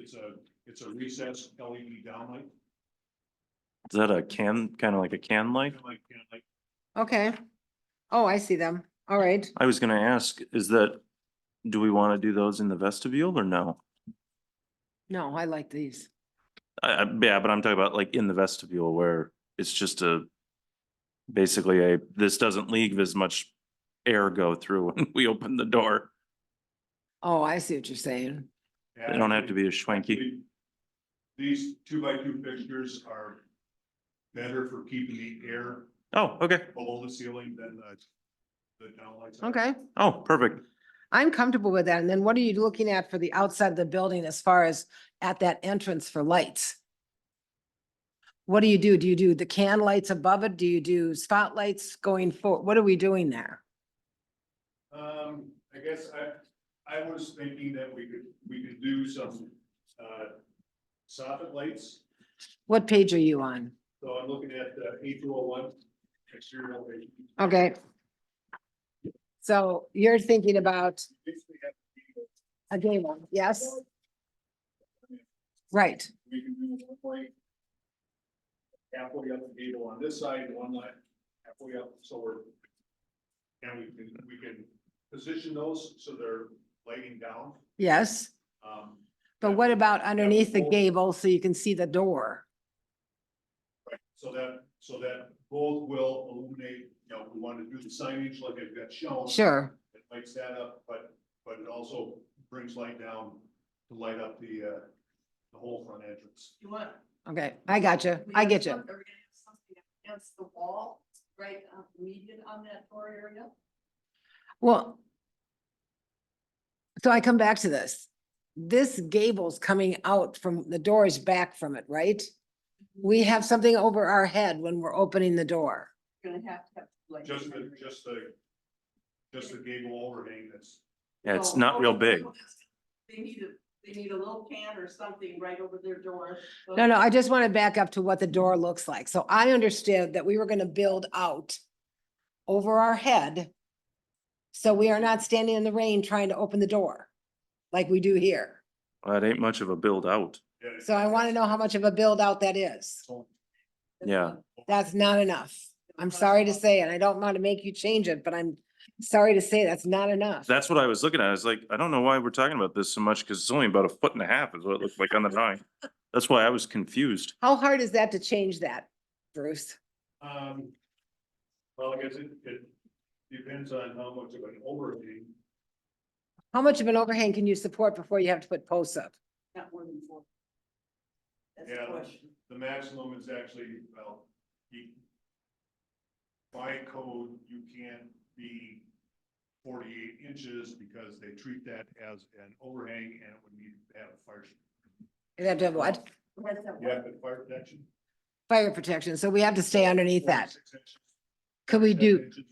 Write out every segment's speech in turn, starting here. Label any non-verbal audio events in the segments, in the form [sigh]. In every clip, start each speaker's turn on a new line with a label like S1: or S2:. S1: it's a, it's a recessed LED downlight.
S2: Is that a can, kind of like a can light?
S1: Downlight, downlight.
S3: Okay. Oh, I see them. All right.
S2: I was gonna ask, is that, do we want to do those in the vestibule or no?
S3: No, I like these.
S2: I, I, yeah, but I'm talking about like in the vestibule where it's just a, basically a, this doesn't leave as much air go through [laughs] when we open the door.
S3: Oh, I see what you're saying.
S2: They don't have to be as schwanky.
S1: These two by two fixtures are better for keeping the air
S2: Oh, okay.
S1: below the ceiling than the, the downlights. are.
S3: Okay.
S2: Oh, perfect.
S3: I'm comfortable with that. And then what are you looking at for the outside of the building as far as at that entrance for lights? What do you do? Do you do the can lights above it? Do you do spotlights going for, what are we doing there?
S1: Um, I guess I, I was thinking that we could, we could do some, uh, soffit lights.
S3: What page are you on?
S1: So I'm looking at the eight two oh one exterior elevation.
S3: Okay. So you're thinking about
S1: Basically have to be
S3: a gay one, yes? Right.
S1: we can do one light halfway up the gable on this side, and one light halfway up, so we're, and we can, we can position those so they're lighting down.
S3: Yes.
S1: Um,
S3: But
S1: Yeah.
S3: what about underneath the
S1: both-
S3: gable so you can see the door?
S1: right, so that, so that both will illuminate, you know, we want to do the signage like I've got shown.
S3: Sure,
S1: It lights that up, but, but it also brings light down to light up the, uh, the whole front entrance.
S4: You want.
S3: okay, I got you, I get you.
S4: Are we gonna have something against the wall, right, uh, median on that door area?
S3: Well. So I come back to this. This gable's coming out from, the door is back from it, right?
S4: Mm-hmm.
S3: We have something over our head when we're opening the door.
S4: You're Gonna have to have. like,
S1: Just the, just the, just the gable overhang that's
S2: Yeah, it's
S4: no,
S2: not real
S4: no,
S2: big.
S4: oh, They need a, they need a little can or something right over their door. so
S3: No, no, I just want to back up to what the door looks like. So I understood that we were gonna build out over our head. So we are not standing in the rain trying to open the door like we do here.
S2: That ain't much of a build out.
S1: Yeah, it's-
S3: So I want to know how much of a build out that is.
S4: that's
S2: yeah.
S4: not-
S3: That's not enough. I'm sorry to say, and I don't want to make you change it, but I'm sorry to say that's not enough.
S2: That's what I was looking at. I was like, I don't know why we're talking about this so much because it's only about a foot and a half is what it looked like on the drawing. That's why I was confused.
S3: How hard is that to change that, Bruce?
S1: Um, well, I guess it, it depends on how much of an overhang.
S3: How much of an overhang can you support before you have to put posts up?
S4: Not more than four. That's
S1: Yeah.
S4: the question.
S1: The maximum is actually, well, you. By code, you can't be forty-eight inches because they treat that as an overhang and it would need to have a fire.
S3: You have to have what?
S4: That's that
S1: You
S4: one.
S1: have the fire protection.
S3: Fire protection. So we have to stay underneath that.
S1: 46 inches,
S3: Could we
S1: 47
S3: do,
S1: inches,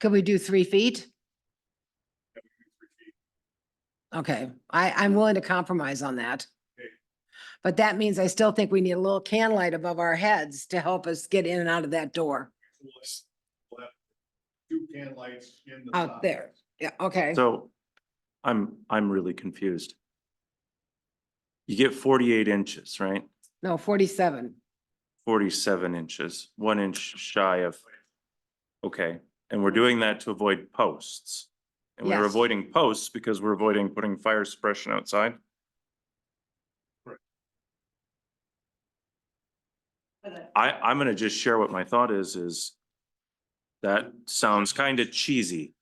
S3: could we do three feet?
S1: that would be three feet.
S3: Okay, I, I'm willing to compromise on that.
S1: Okay.
S3: But that means I still think we need a little can light above our heads to help us get in and out of that door.
S1: We'll have- we'll have Two can lights in the.
S3: Out there.
S1: soffits.
S3: Yeah, okay.
S2: So I'm, I'm really confused. You get forty-eight inches, right?
S3: No, forty-seven.
S2: Forty-seven inches, one inch shy of, okay, and we're doing that to avoid posts. And we're
S3: Yes.
S2: avoiding posts because we're avoiding putting fire suppression outside.
S4: But, uh,
S2: I, I'm gonna just share what my thought is, is that sounds kind of cheesy.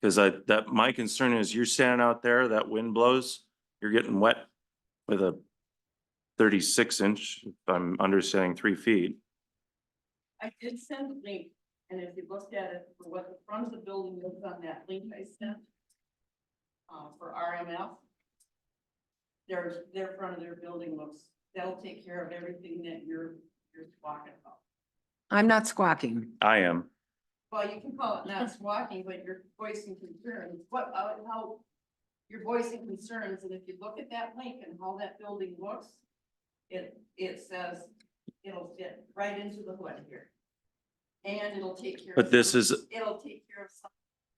S2: Cause I, that, my concern is you're standing out there, that wind blows, you're getting wet with a thirty-six inch, if I'm understanding three feet.
S4: I did send a link, and if you looked at it, for what the front of the building is on that link I sent. Uh, for RMF. Their, their front of their building looks, that'll take care of everything that you're, you're talking about.
S3: I'm not squawking.
S2: I am,
S4: Well, you can call it not squawking, but you're voicing concerns, what, uh, how. You're voicing concerns, and if you look at that link and how that building looks. It, it says, it'll fit right into the hood here. And it'll take care. of
S2: But this
S4: some-
S2: is-
S4: It'll take care of some,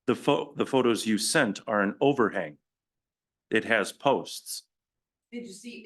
S2: the pho- the photos you sent are an overhang. It has posts.
S4: did you see,